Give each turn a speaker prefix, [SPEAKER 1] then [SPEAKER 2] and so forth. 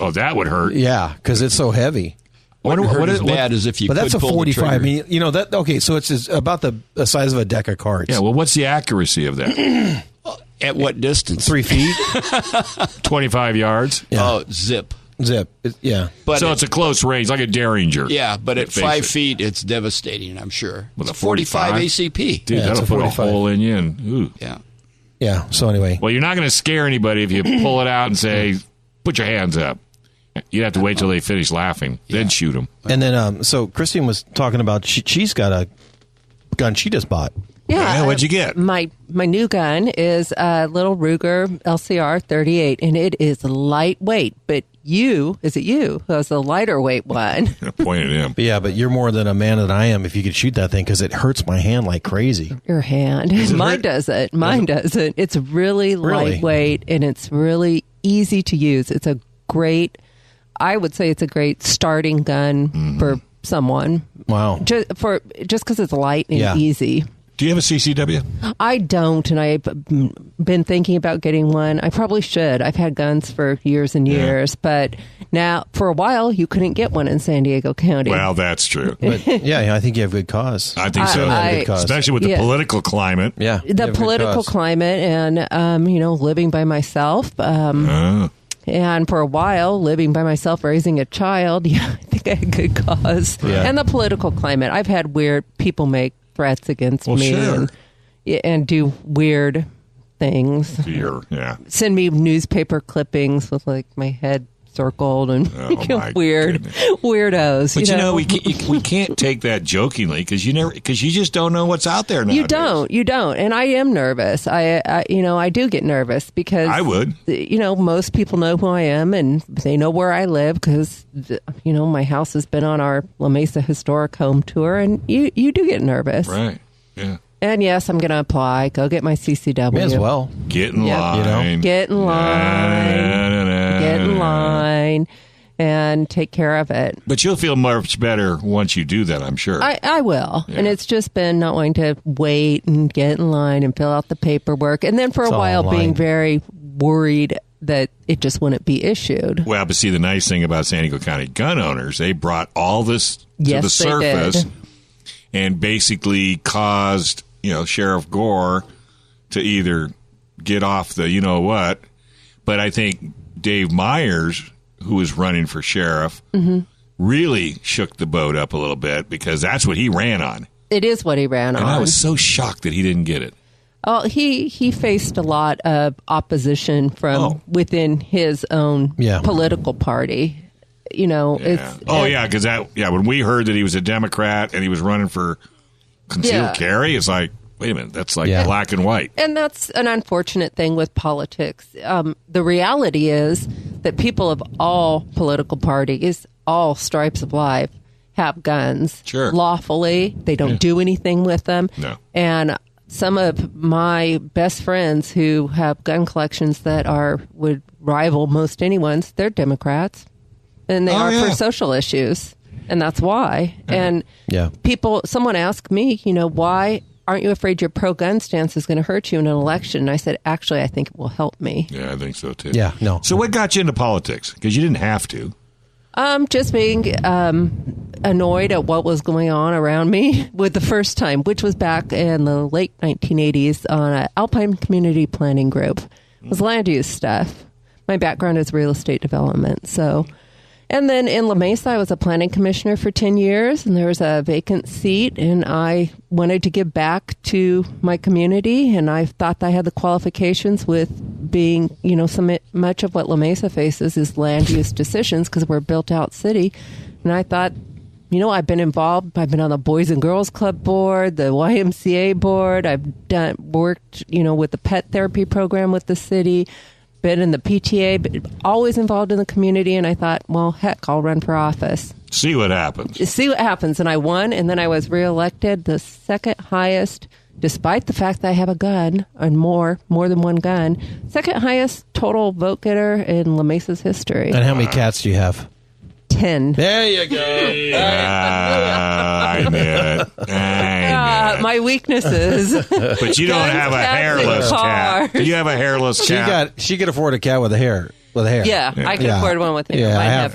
[SPEAKER 1] Oh, that would hurt.
[SPEAKER 2] Yeah, because it's so heavy.
[SPEAKER 1] What,
[SPEAKER 3] Wouldn't
[SPEAKER 1] what,
[SPEAKER 3] hurt
[SPEAKER 1] what,
[SPEAKER 3] as
[SPEAKER 1] what-
[SPEAKER 3] bad as if you
[SPEAKER 2] but
[SPEAKER 3] could
[SPEAKER 2] that's a
[SPEAKER 3] pull the
[SPEAKER 2] 45. I
[SPEAKER 3] trigger.
[SPEAKER 2] mean, you know that. Okay, so it's as- about the, the size of a deck of cards.
[SPEAKER 1] yeah, well, what's the accuracy of that?
[SPEAKER 3] At what distance?
[SPEAKER 2] three feet.
[SPEAKER 1] 25 yards?
[SPEAKER 2] Yeah.
[SPEAKER 3] Oh, zip.
[SPEAKER 2] Zip. It- yeah.
[SPEAKER 3] But
[SPEAKER 1] so
[SPEAKER 3] at-
[SPEAKER 1] it's a close range, like a Derringer.
[SPEAKER 3] yeah, but at
[SPEAKER 1] Basically.
[SPEAKER 3] five feet, it's devastating. I'm sure.
[SPEAKER 1] With
[SPEAKER 3] It's
[SPEAKER 1] a 45?
[SPEAKER 3] ACP.
[SPEAKER 1] Dude,
[SPEAKER 2] Yeah, it's
[SPEAKER 1] that'll
[SPEAKER 2] a
[SPEAKER 1] put
[SPEAKER 2] 45.
[SPEAKER 1] a hole in you. And, ooh.
[SPEAKER 3] Yeah.
[SPEAKER 2] Yeah. So anyway,
[SPEAKER 1] Well, you're not going to scare anybody if you pull it out and say, put your hands up. You'd have to wait till they finish laughing, then shoot them.
[SPEAKER 2] and then um, so Christine was talking about she, she's got a gun she just bought.
[SPEAKER 4] Yeah.
[SPEAKER 5] Yeah, what'd you get?
[SPEAKER 4] My my new gun is a little Ruger LCR 38, and it is lightweight. But you, is it you, who has the lighter weight one?
[SPEAKER 1] Point at him.
[SPEAKER 2] But yeah, but you're more than a man than I am if you could shoot that thing because it hurts my hand like crazy.
[SPEAKER 4] Your hand. Mine doesn't. Mine doesn't. It's really,
[SPEAKER 2] Really?
[SPEAKER 4] lightweight, and it's really easy to use. It's a great. I would say it's a great starting gun for someone.
[SPEAKER 2] Wow.
[SPEAKER 4] Just for just because it's light and
[SPEAKER 2] Yeah.
[SPEAKER 4] easy.
[SPEAKER 5] Do you have a CCW?
[SPEAKER 4] I don't, and I've been thinking about getting one. I probably should. I've had guns for years and years, but now for a while you couldn't get one in San Diego County.
[SPEAKER 5] Well, that's true.
[SPEAKER 2] But yeah, I think you have good cause.
[SPEAKER 5] I think so.
[SPEAKER 4] I- I-
[SPEAKER 5] Especially with the
[SPEAKER 4] Yeah.
[SPEAKER 5] political climate.
[SPEAKER 2] yeah. you have
[SPEAKER 4] the
[SPEAKER 2] good
[SPEAKER 4] political
[SPEAKER 2] cause.
[SPEAKER 4] climate, and um, you know, living by myself, um,
[SPEAKER 5] Uh,
[SPEAKER 4] and for a while living by myself, raising a child. Yeah, I think I had good cause,
[SPEAKER 2] Yeah.
[SPEAKER 4] and the political climate. I've had weird people make threats against
[SPEAKER 5] Well,
[SPEAKER 4] me
[SPEAKER 5] sure.
[SPEAKER 4] and, yeah, and do weird things.
[SPEAKER 5] fear. Yeah.
[SPEAKER 4] send me newspaper clippings with like my head circled and
[SPEAKER 5] Oh, my
[SPEAKER 4] weird
[SPEAKER 5] goodness.
[SPEAKER 4] weirdos.
[SPEAKER 5] But you know, we can't, we can't take that jokingly because you never because you just don't know what's out there now.
[SPEAKER 4] you don't, you don't, and I am nervous. I, I, you know, I do get nervous because
[SPEAKER 5] I would.
[SPEAKER 4] You know, most people know who I am and they know where I live because, you know, my house has been on our La Mesa Historic Home Tour, and you, you do get nervous.
[SPEAKER 5] Right. Yeah.
[SPEAKER 4] And yes, I'm going to apply. Go get my CCW.
[SPEAKER 2] May as well.
[SPEAKER 5] Get in
[SPEAKER 4] Yeah.
[SPEAKER 5] line.
[SPEAKER 2] You know?
[SPEAKER 4] Get in line.
[SPEAKER 5] Na, na, na,
[SPEAKER 4] Get in
[SPEAKER 5] na.
[SPEAKER 4] line and take care of it.
[SPEAKER 5] But you'll feel much better once you do that, I'm sure.
[SPEAKER 4] I, I will. And it's just been not wanting to wait and get in line and fill out the paperwork. And then for
[SPEAKER 2] It's
[SPEAKER 4] a
[SPEAKER 2] all
[SPEAKER 4] while
[SPEAKER 2] online.
[SPEAKER 4] being very worried that it just wouldn't be issued.
[SPEAKER 5] well, but see, the nice thing about San Diego County gun owners, they brought all this to
[SPEAKER 4] Yes,
[SPEAKER 5] the
[SPEAKER 4] they did.
[SPEAKER 5] surface and basically caused, you know, Sheriff Gore to either get off the, you know what. But I think Dave Myers, who was running for sheriff,
[SPEAKER 4] Mm-hmm.
[SPEAKER 5] really shook the boat up a little bit because that's what he ran on.
[SPEAKER 4] It is what he ran
[SPEAKER 5] And I
[SPEAKER 4] on.
[SPEAKER 5] was so shocked that he didn't get it.
[SPEAKER 4] Oh, he, he faced a lot of opposition from
[SPEAKER 5] Oh.
[SPEAKER 4] within his own
[SPEAKER 2] Yeah.
[SPEAKER 4] political party. You know,
[SPEAKER 5] Yeah.
[SPEAKER 4] it's
[SPEAKER 5] Oh yeah, because that yeah when we heard that he was a Democrat and he was running for concealed
[SPEAKER 4] Yeah.
[SPEAKER 5] carry, it's like wait a minute, that's like
[SPEAKER 2] Yeah.
[SPEAKER 5] black and white.
[SPEAKER 4] and that's an unfortunate thing with politics. Um, the reality is that people of all political parties, all stripes of life, have guns
[SPEAKER 5] Sure.
[SPEAKER 4] lawfully. They don't do anything with them.
[SPEAKER 5] No.
[SPEAKER 4] And some of my best friends who have gun collections that are would rival most anyone's, they're Democrats, and they
[SPEAKER 5] Oh,
[SPEAKER 4] are
[SPEAKER 5] yeah.
[SPEAKER 4] for social issues, and that's why. And
[SPEAKER 2] Yeah.
[SPEAKER 4] people someone asked me you know why aren't you afraid your pro-gun stance is going to hurt you in an election and i said actually i think it will help me
[SPEAKER 5] Yeah, I think so too.
[SPEAKER 2] Yeah, no.
[SPEAKER 5] So what got you into politics? Because you didn't have to.
[SPEAKER 4] um just being um annoyed at what was going on around me with the first time which was back in the late 1980s on an alpine community planning group it was land use stuff my background is real estate development so and then in La Mesa, I was a planning commissioner for 10 years, and there was a vacant seat, and I wanted to give back to my community, and I thought that I had the qualifications with being, you know, so mi- much of what La Mesa faces is land use decisions because we're a built out city. And I thought, you know, I've been involved. I've been on the Boys and Girls Club board, the YMCA board. I've done worked, you know, with the pet therapy program with the city, been in the PTA, but always involved in the community. And I thought, well, heck, I'll run for office,
[SPEAKER 5] See what happens.
[SPEAKER 4] see what happens. And I won, and then I was reelected, the second highest, despite the fact that I have a gun and more, more than one gun, second highest total vote getter in La Mesa's history.
[SPEAKER 2] And how many cats do you have?
[SPEAKER 4] 10.
[SPEAKER 2] There you go.
[SPEAKER 5] Ah, I knew it. I
[SPEAKER 4] Uh, my weaknesses.
[SPEAKER 5] knew it. But you don't
[SPEAKER 4] guns,
[SPEAKER 5] have a
[SPEAKER 4] cats, and
[SPEAKER 5] hairless cat.
[SPEAKER 4] cars.
[SPEAKER 5] You have a hairless
[SPEAKER 2] She
[SPEAKER 5] cat.
[SPEAKER 2] got she could afford a cat with a hair with a hair.
[SPEAKER 4] yeah, I can
[SPEAKER 2] Yeah.
[SPEAKER 4] afford one with him.
[SPEAKER 2] Yeah, I
[SPEAKER 4] Mine
[SPEAKER 2] have-
[SPEAKER 4] have